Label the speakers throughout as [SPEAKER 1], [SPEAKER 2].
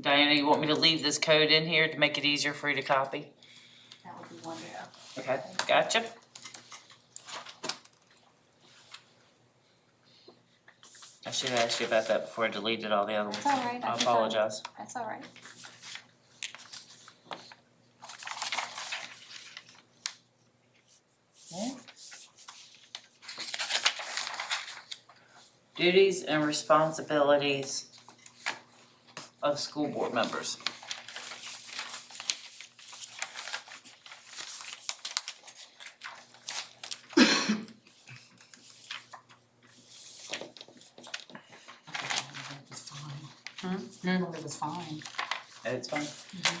[SPEAKER 1] Diana, you want me to leave this code in here to make it easier for you to copy?
[SPEAKER 2] That would be wonderful.
[SPEAKER 1] Okay, gotcha. I should have asked you about that before I deleted all the other ones.
[SPEAKER 2] It's all right, I
[SPEAKER 1] I
[SPEAKER 2] can find it.
[SPEAKER 1] apologize.
[SPEAKER 2] That's all right.
[SPEAKER 1] Duties and responsibilities of school board members.
[SPEAKER 2] It was fine. Hmm? It was fine.
[SPEAKER 1] It's fine. Mm-hmm.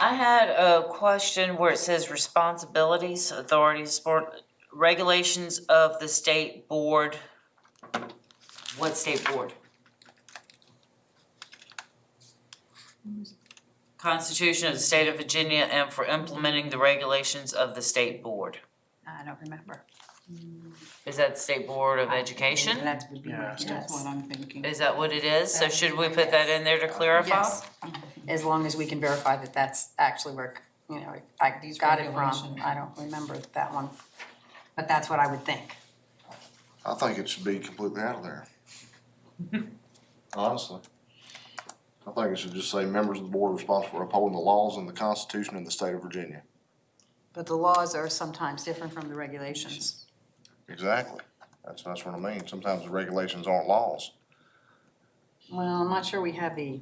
[SPEAKER 1] I had a question where it says responsibilities, authorities, sport, regulations of the state board. What state board? Constitution of the State of Virginia and for implementing the regulations of the state board.
[SPEAKER 2] I don't remember.
[SPEAKER 1] Is that the State Board of Education?
[SPEAKER 2] That would be my
[SPEAKER 3] Yes.
[SPEAKER 4] That's
[SPEAKER 2] guess.
[SPEAKER 4] what I'm thinking.
[SPEAKER 1] Is that what it is? So
[SPEAKER 2] That
[SPEAKER 1] should
[SPEAKER 2] would
[SPEAKER 1] we
[SPEAKER 2] be
[SPEAKER 1] put that
[SPEAKER 2] yes.
[SPEAKER 1] in there to clarify?
[SPEAKER 4] Yes, as long as we can verify that that's actually where, you know, I
[SPEAKER 3] These
[SPEAKER 4] got it from,
[SPEAKER 3] regulations.
[SPEAKER 4] I don't remember that one. But that's what I would think.
[SPEAKER 5] I think it should be completely out of there. Honestly. I think it should just say members of the board responsible for upholding the laws and the Constitution of the state of Virginia.
[SPEAKER 4] But the laws are sometimes different from the regulations.
[SPEAKER 5] Exactly. That's, that's what I mean. Sometimes the regulations aren't laws.
[SPEAKER 4] Well, I'm not sure we have the,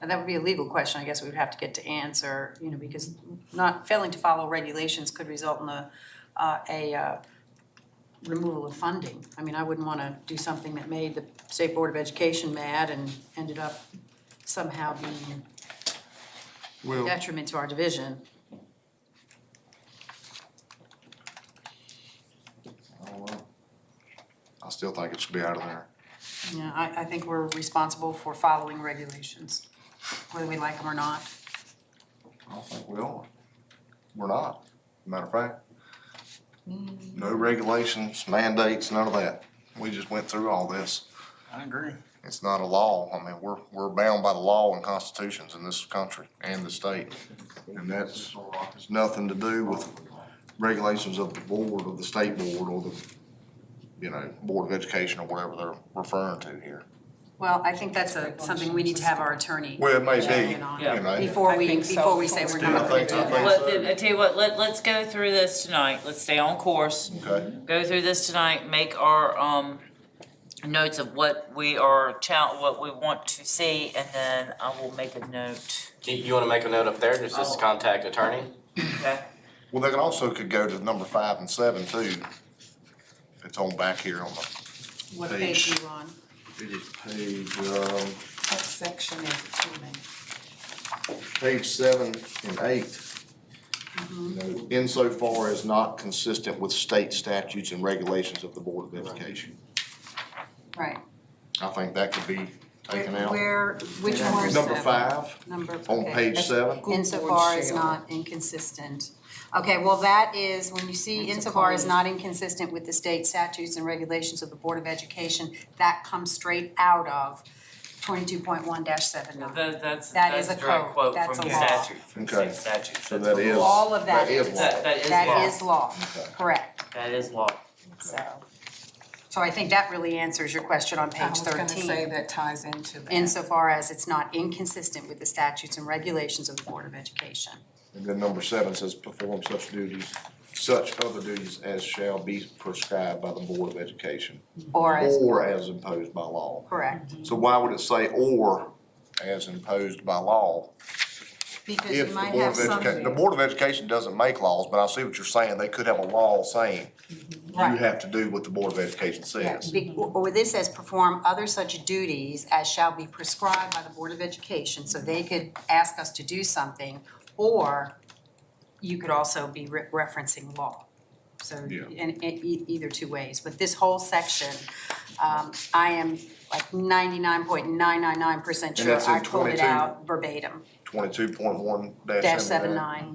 [SPEAKER 4] and that would be a legal question, I guess we would have to get to answer, you know, because not, failing to follow regulations could result in a, uh, a, uh, removal of funding. I mean, I wouldn't wanna do something that made the State Board of Education mad and ended up somehow being
[SPEAKER 6] Well,
[SPEAKER 4] detriment to our division.
[SPEAKER 5] I don't know. Oh, I still think it should be out of there.
[SPEAKER 4] Yeah, I, I think we're responsible for following regulations, whether we like them or not.
[SPEAKER 5] I don't think we are. We're not. Matter of fact, no regulations, mandates, none of that. We just went through all this.
[SPEAKER 3] I agree.
[SPEAKER 5] It's not a law. I mean, we're, we're bound by the law and constitutions in this country and the state. And that's, has nothing to do with regulations of the board, of the state board, or the, you know, Board of Education or whatever they're referring to here.
[SPEAKER 4] Well, I think that's a, something we need to have our attorney
[SPEAKER 5] Well, it may
[SPEAKER 4] check
[SPEAKER 5] be,
[SPEAKER 4] in on.
[SPEAKER 5] you know,
[SPEAKER 4] Before
[SPEAKER 3] I
[SPEAKER 4] we,
[SPEAKER 3] think so.
[SPEAKER 4] before we say we're not gonna
[SPEAKER 5] I think-
[SPEAKER 4] do
[SPEAKER 5] I think-
[SPEAKER 4] that.
[SPEAKER 1] Well, then, I tell you what, let, let's go through this tonight, let's stay on course.
[SPEAKER 5] okay,
[SPEAKER 1] Go through this tonight, make our, um, notes of what we are chal, what we want to see, and then I will make a note.
[SPEAKER 7] Do you wanna make a note up there, just as contact attorney?
[SPEAKER 1] Okay.
[SPEAKER 5] well, they can also could go to number five and seven too. It's on back here on the,
[SPEAKER 4] What page are you on?
[SPEAKER 5] it is page, um,
[SPEAKER 3] What section is it in?
[SPEAKER 5] page seven and eight. you
[SPEAKER 4] Mm-hmm.
[SPEAKER 5] know, Insofar as not consistent with state statutes and regulations of the Board of Education.
[SPEAKER 4] Right.
[SPEAKER 5] I think that could be taken out.
[SPEAKER 4] Where, which one? is
[SPEAKER 5] Number
[SPEAKER 4] that?
[SPEAKER 5] five,
[SPEAKER 4] Number.
[SPEAKER 5] on
[SPEAKER 4] okay.
[SPEAKER 5] page seven,
[SPEAKER 4] Insofar as not inconsistent. Okay, well, that is, when you see insofar as not inconsistent with the state statutes and regulations of the Board of Education, that comes straight out of twenty-two point one dash seven
[SPEAKER 1] Now,
[SPEAKER 4] nine.
[SPEAKER 1] That, that's,
[SPEAKER 4] That is
[SPEAKER 1] that's a
[SPEAKER 4] a
[SPEAKER 1] direct
[SPEAKER 4] code.
[SPEAKER 1] quote
[SPEAKER 4] That's
[SPEAKER 1] from
[SPEAKER 4] a
[SPEAKER 1] the
[SPEAKER 4] law.
[SPEAKER 1] statute, from the
[SPEAKER 5] Okay.
[SPEAKER 1] state statute.
[SPEAKER 5] so that is.
[SPEAKER 4] All of that
[SPEAKER 5] That
[SPEAKER 4] is-
[SPEAKER 5] is law.
[SPEAKER 1] That, that is
[SPEAKER 4] That
[SPEAKER 1] law,
[SPEAKER 4] is law,
[SPEAKER 5] Okay.
[SPEAKER 4] correct,
[SPEAKER 1] that is law.
[SPEAKER 4] so. So I think that really answers your question on
[SPEAKER 3] I
[SPEAKER 4] page
[SPEAKER 3] was gonna say
[SPEAKER 4] thirteen,
[SPEAKER 3] that ties into that.
[SPEAKER 4] insofar as it's not inconsistent with the statutes and regulations of the Board of Education.
[SPEAKER 5] And then number seven says perform such duties, such other duties as shall be prescribed by the Board of Education.
[SPEAKER 4] Or as,
[SPEAKER 5] Or as imposed by law.
[SPEAKER 4] correct,
[SPEAKER 5] So why would it say or as imposed by law?
[SPEAKER 4] because
[SPEAKER 5] If
[SPEAKER 4] you
[SPEAKER 5] the
[SPEAKER 4] might
[SPEAKER 5] Board
[SPEAKER 4] have
[SPEAKER 5] of Education, the
[SPEAKER 4] some,
[SPEAKER 5] Board of Education doesn't make laws, but I see what you're saying, they could have a law saying you
[SPEAKER 4] Mm-hmm. Right.
[SPEAKER 5] have to do what the Board of Education says.
[SPEAKER 4] Be- Or this says perform other such duties as shall be prescribed by the Board of Education, so they could ask us to do something, or you could also be re- referencing law. So,
[SPEAKER 5] Yeah.
[SPEAKER 4] in, in e- either two ways, but this whole section, um, I am like ninety-nine point nine nine nine percent
[SPEAKER 5] And
[SPEAKER 4] sure
[SPEAKER 5] that's in
[SPEAKER 4] I pulled it
[SPEAKER 5] 22.
[SPEAKER 4] out verbatim,
[SPEAKER 5] Twenty-two point one
[SPEAKER 4] dash
[SPEAKER 5] dash seven
[SPEAKER 4] seven
[SPEAKER 5] nine.
[SPEAKER 4] nine.